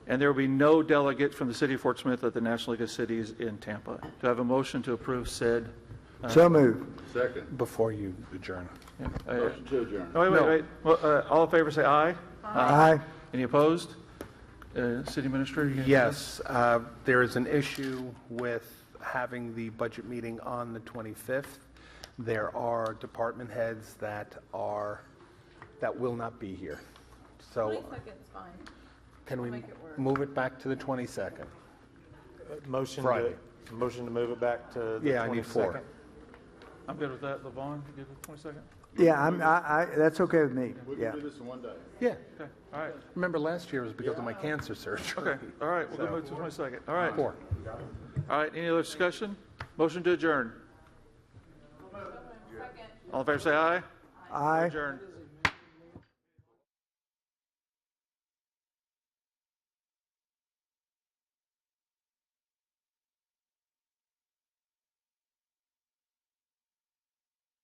And there will be no delegate from the city of Fort Smith at the National League of Cities in Tampa. Do I have a motion to approve said? So move. Second. before you adjourn. uh, Motion to adjourn. No, wait, wait, No. wait. Well, uh, All in favor, say aye. Aye. Any opposed? Uh, City Minister? you have- Yes, uh, there is an issue with having the budget meeting on the 25th. There are department heads that are, that will not be here. So Twenty-second's fine. can we make it work. move it back to the 22nd? Motion Friday. to, motion to move it back to the 22nd? Yeah, I need four. I'm good with that. LaVon, you good with 22nd? Yeah, I'm, I, I, that's okay with me, We yeah. can do this in one day. Yeah. Okay, all right, Remember last year was because of my cancer surgery. okay, all right, we'll go move to 22nd. All right, all Four. right, any other discussion? Motion to adjourn. All in favor, say aye. Aye. Adjourn.